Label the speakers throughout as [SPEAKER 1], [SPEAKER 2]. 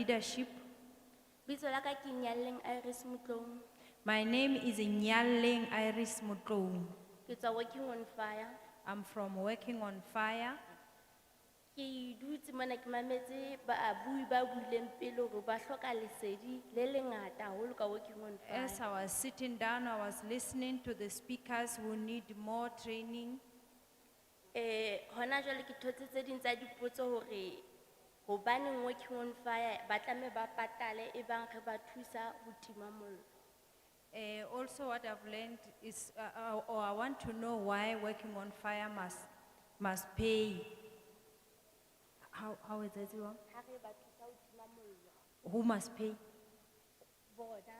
[SPEAKER 1] Leadership.
[SPEAKER 2] bitso la ka ke nyalleng iris motlong
[SPEAKER 1] My name is Nyaleng Iris Mutlou.
[SPEAKER 2] ke tswa working on fire
[SPEAKER 1] I'm from Working on Fire.
[SPEAKER 2] ke dutse mona ke mametse baabui ba buileng pele gore ba hloka lesedi le lengata haholo ka working on fire
[SPEAKER 1] As I was sitting down, I was listening to the speakers who need more training.
[SPEAKER 2] um gona jwale ke thotse tse ding tsa dipotso gore gobaneng working on fire ba tlame ba patale e bang re ba thusa ho tima mollo
[SPEAKER 1] Eh, also what I've learned is, uh, uh, or I want to know why Working on Fire must, must pay. How, how is that wrong?
[SPEAKER 2] ha re ba thusa ho tima mollo
[SPEAKER 1] Who must pay?
[SPEAKER 2] bona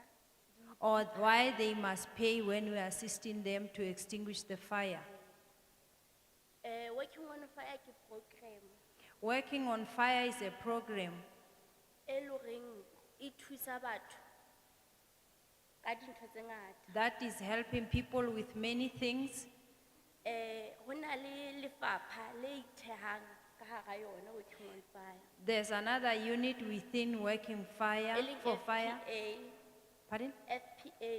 [SPEAKER 1] Or why they must pay when we are assisting them to extinguish the fire?
[SPEAKER 2] um working on fire ke program
[SPEAKER 1] Working on Fire is a program
[SPEAKER 2] e le goreng e thusa batho ka dintho tse ngata
[SPEAKER 1] that is helping people with many things.
[SPEAKER 2] Eh, hona le lefapha le ithehang ka hara yona working on fire.
[SPEAKER 1] There's another unit within Working Fire
[SPEAKER 2] E leng
[SPEAKER 1] for Fire,
[SPEAKER 2] FPA,
[SPEAKER 1] pardon?
[SPEAKER 2] FPA,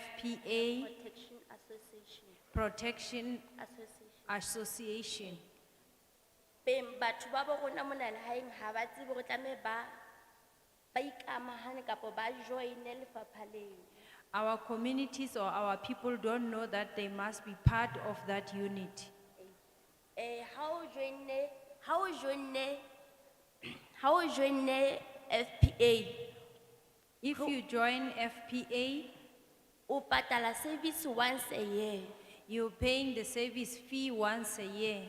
[SPEAKER 1] FPA
[SPEAKER 2] Protection Association,
[SPEAKER 1] Protection
[SPEAKER 2] Association.
[SPEAKER 1] Association.
[SPEAKER 2] Beng batho ba bo rona mona lehaeng ha ba tsebe hore tlameha ba, ba ikamahane kapa ba joine lefapha leo.
[SPEAKER 1] Our communities or our people don't know that they must be part of that unit.
[SPEAKER 2] Eh, ha o joine, ha o joine, ha o joine FPA,
[SPEAKER 1] If you join FPA,
[SPEAKER 2] o patala service once a year.
[SPEAKER 1] you're paying the service fee once a year.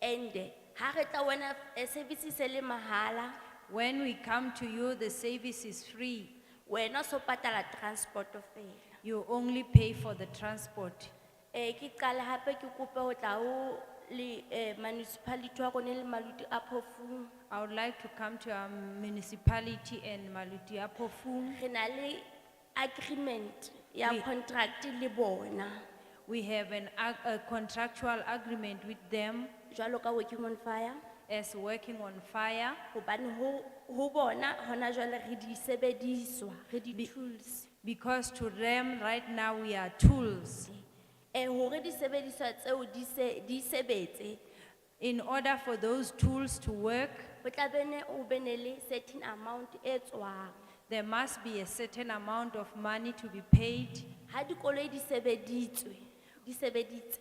[SPEAKER 2] And ha re tla wena eh, service e se le mahala,
[SPEAKER 1] When we come to you, the service is free.
[SPEAKER 2] wena o so patala transport fela.
[SPEAKER 1] You only pay for the transport.
[SPEAKER 2] Eh ke qala hape ke kope ho tla ho le eh municipality wa rona le maluti a phofung.
[SPEAKER 1] I would like to come to our municipality and Maluti Apofung.
[SPEAKER 2] Re na le agreement ya
[SPEAKER 1] We-
[SPEAKER 2] contract le bona.
[SPEAKER 1] We have an, ag- a contractual agreement with them
[SPEAKER 2] Jwalo ka working on fire,
[SPEAKER 1] as working on fire
[SPEAKER 2] hobane ho ho bona hona jwale re di sebediswa, re di tools.
[SPEAKER 1] because to them right now we are tools.
[SPEAKER 2] Eh hore di sebediswa tseo di se di sebetse,
[SPEAKER 1] In order for those tools to work,
[SPEAKER 2] ho tla bene o bene le certain amount e tswang.
[SPEAKER 1] there must be a certain amount of money to be paid.
[SPEAKER 2] Ha dikoloi di sebeditswe, di sebeditse.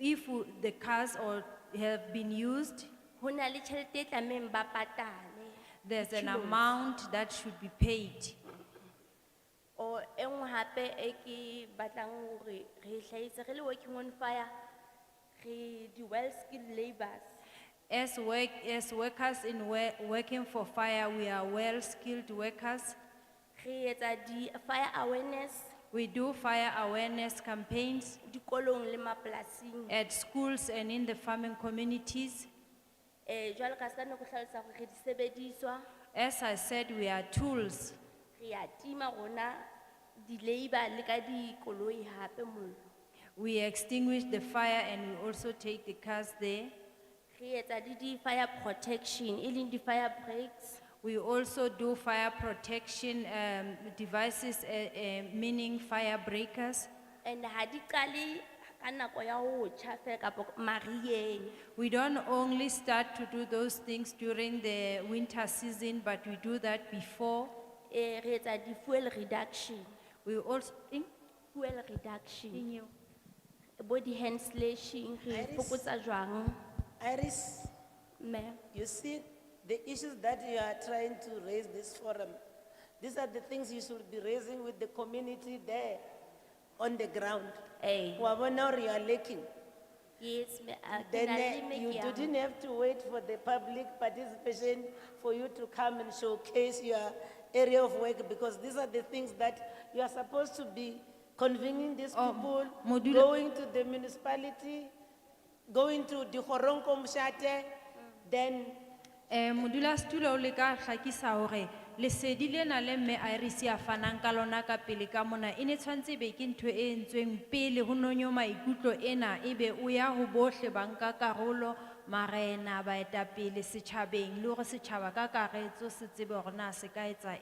[SPEAKER 1] If w- the cars or have been used,
[SPEAKER 2] Hona le tjhelete e tlamehang ba patale.
[SPEAKER 1] there's an
[SPEAKER 2] Kilos.
[SPEAKER 1] amount that should be paid.
[SPEAKER 2] O e nngwe hape e ke batlang hore re e hlahise re le working on fire, re di well skilled labours.
[SPEAKER 1] As work, as workers in wo- working for fire, we are well-skilled workers.
[SPEAKER 2] Re etsa di fire awareness
[SPEAKER 1] We do fire awareness campaigns
[SPEAKER 2] dikolong le mapolasing.
[SPEAKER 1] at schools and in the farming communities.
[SPEAKER 2] Eh jwalo ka sano ko hlalosa hore re di sebediswa,
[SPEAKER 1] As I said, we are tools.
[SPEAKER 2] re a tima rona di labour le ka dikoloi hape mollo.
[SPEAKER 1] We extinguish the fire and we also take the cars there.
[SPEAKER 2] Re etsa di di fire protection, e leng di fire breaks.
[SPEAKER 1] We also do fire protection um, devices, uh, uh, meaning fire breakers.
[SPEAKER 2] And ha di qale ka nako ya ho tjha fela kapa mariyeng.
[SPEAKER 1] We don't only start to do those things during the winter season, but we do that before.
[SPEAKER 2] Eh re etsa di fuel reduction,
[SPEAKER 1] We also, in,
[SPEAKER 2] fuel reduction,
[SPEAKER 1] in you.
[SPEAKER 2] bo di hand slashing, re
[SPEAKER 3] Iris.
[SPEAKER 2] fokotsa jwang,
[SPEAKER 3] Iris,
[SPEAKER 2] ma'am.
[SPEAKER 3] you see, the issues that you are trying to raise this forum, these are the things you should be raising with the community there on the ground.
[SPEAKER 2] Eh,
[SPEAKER 3] Wabona or you are lacking,
[SPEAKER 2] yes, ma- ah, ke
[SPEAKER 3] then
[SPEAKER 2] na le
[SPEAKER 3] eh,
[SPEAKER 2] me
[SPEAKER 3] you
[SPEAKER 2] ke yang.
[SPEAKER 3] didn't have to wait for the public participation for you to come and showcase your area of work because these are the things that you are supposed to be convening these
[SPEAKER 1] Oh,
[SPEAKER 3] people,
[SPEAKER 1] Modula-
[SPEAKER 3] going to the municipality, going to the Horonko Mshate,
[SPEAKER 2] Mm.
[SPEAKER 3] then
[SPEAKER 1] Eh, modula stulo le ka hlakisa hore lesedi lena le mme Iris ya fanang ka lona ka pele ka mona e ne tshwantse e be ke ntho e entsweng pele ho nonyo maikutlo ena ebe o ya ho bohle ba nka karolo marena, baetapele, setjhabeng, le hore setjhaba ka karetso se tsebe hore na se ka etsa